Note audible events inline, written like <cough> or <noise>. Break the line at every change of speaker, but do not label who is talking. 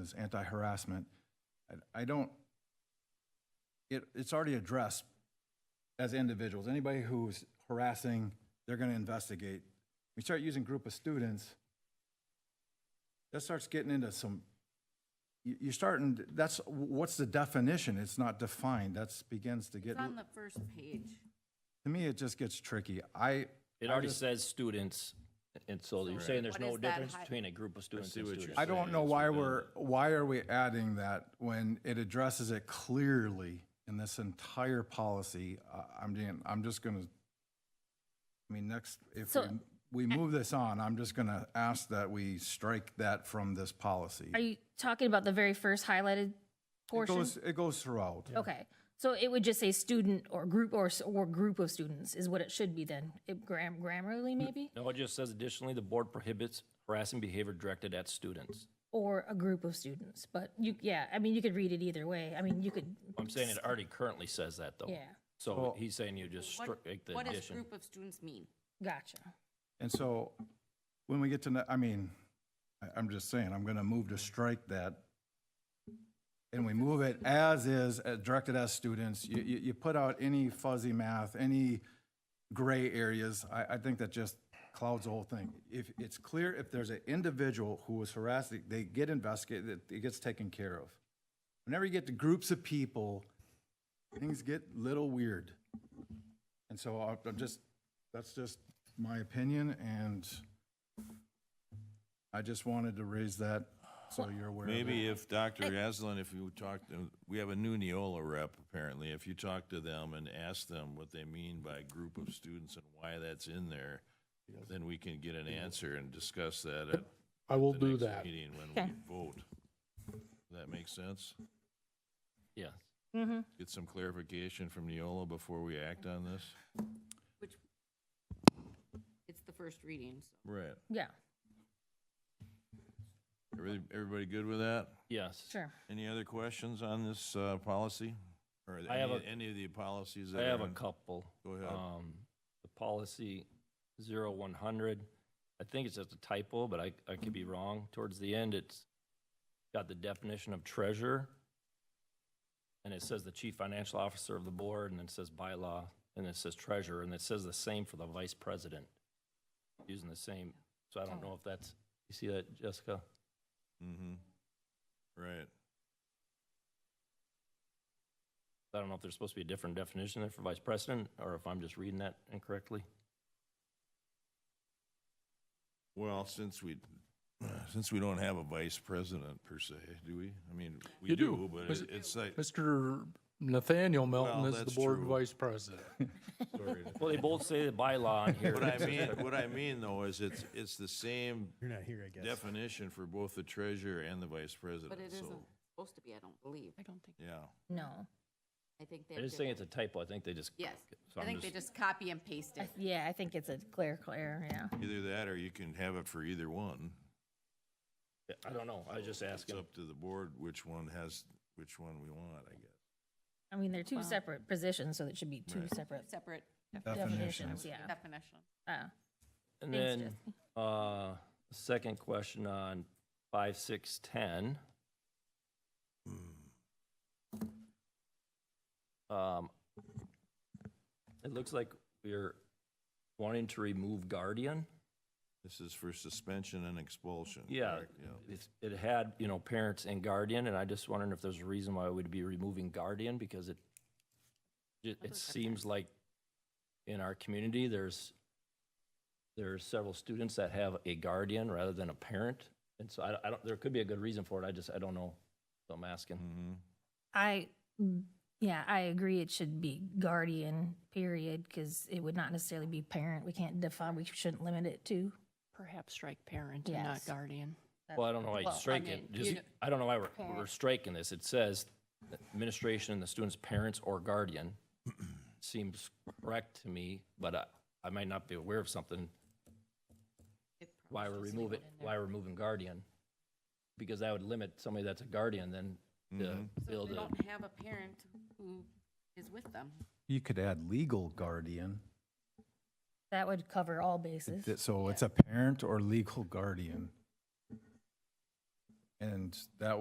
is anti-harassment. I- I don't, it, it's already addressed as individuals. Anybody who's harassing, they're going to investigate. We start using group of students, that starts getting into some, you- you're starting, that's, what's the definition? It's not defined. That's begins to get,
It's on
to
the first page.
me, it just gets tricky. I,
It already says students, and so you're saying there's
What
no
is that
difference
hi-
between a group of students
see
and
what you're
students.
I don't know why we're, why are we adding that when it addresses it clearly in this entire policy? Uh, I'm, being- I'm just gonna, I mean, next, if we-
So- eh,
we move this on, I'm just gonna ask that we strike that from this policy.
Are you talking about the very first highlighted
It
portion?
goes, it goes throughout.
Okay, so it would just say student or group or, s- or group of students is what it should be then, It gram, grammarly maybe?
No, it just says additionally, the board prohibits harassing behavior directed at students.
Or a group of students, but you, yeah, I mean, you could read it either way, I mean, you could,
I'm saying it already currently says that, though.
Yeah.
So he's saying you just
What,
strike the
what does
addition.
group of students mean?
gotcha.
And so when we get to, ne- I mean, I- I'm just saying, I'm going to move to strike that. And we move it as is, uh, directed as students. You, you, you put out any fuzzy math, any gray areas, I, I think that just clouds the whole thing. If, it's clear if there's an individual who was harassed, they- they get investigated, it- it gets taken care of. Whenever you get to groups of people, things get little weird. And so I- I'm just, that's just my opinion, and I just wanted to raise that so you're aware of it.
Maybe if Dr. Aslan, if you talk to, we have a new Neola rep apparently. If you talk to them and ask them what they mean by group of students and why that's in there, then we can get an answer and discuss that at
I will
the
do
next
that.
meeting when
Okay.
we vote. Does that make sense?
Yeah.
Get some clarification from Neola before we act on this?
Which, it's the first reading, so.
Right.
Yeah,
Everybody, everybody good with that?
Yes.
sure.
Any other questions on this uh, policy? Or
I have
any-
a-
any of the policies that
I
are?
have a
in-
couple.
Go ahead.
Um, the policy zero one hundred, I think it's just a typo, but I, I could be wrong. Towards the end, it's got the definition of treasurer. And it says the chief financial officer of the board, and it says bylaw, and it says treasurer, and it says the same for the vice president. Using the same, so I don't know if that's, you see that, Jessica?
Mm-hmm. Right.
I don't know if there's supposed to be a different definition there for vice president, or if I'm just reading that
<laughs>
incorrectly.
Well, since we, since we don't have a vice president per se, do we? I mean, we
You
do,
do.
but
Mis-
it- it's like,
Mr. Nathaniel
Well,
Melton is the
that's
board
true.
vice president.
sorry. to-
Well, they both say the bylaw on here.
What
<laughs>
I mean, what I mean though is it's, it's the same
You're not here, I guess.
definition for both the treasurer and the vice
But
president,
it isn't
so,
supposed to be, I don't believe. I don't think.
yeah.
No,
I think they.
I just think it's a typo. I think they just.
Yes,
So
I
I'm
think they just copy and paste
I
it.
th- yeah, I think it's a clerical error, yeah.
Either that or you can have it for either one.
I don't know. I was just
It's
asking.
up to the board which one has, which one we want, I guess.
I mean, they're two separate positions, so it should be two separate
Separate
definitions, yeah.
definition.
Uh,
And
Thanks,
then, uh, second question on five, six, ten. Um, it looks like we're wanting to remove guardian.
This is for suspension and expulsion.
Yeah,
correct?
it's, it had, you know, parents and guardian, and I just wondering if there's a reason why we'd be removing guardian, because it, it, it seems like in our community, there's, there are several students that have a guardian rather than a parent, and so I, don't- I don't, there could be a good reason for it, I just, I don't know, so I'm asking.
Mm-hmm.
I, mm, yeah, I agree. It should be guardian, period, because it would not necessarily be parent. We can't define, we shouldn't limit it to.
Perhaps strike parent and not
Yes.
guardian.
Well, I don't know why you're
Well, I
striking,
mean,
it. just, I don't know why we're, we're striking this, it says administration and the student's parents or guardian seems correct to me, but I, I might not be aware of something why we're removing, why we're removing guardian, because that would limit somebody that's a guardian then to
So
build
they
a,
don't have a parent who is with them.
You could add legal guardian,
That would cover all bases.
Th- so it's a parent or legal guardian. And that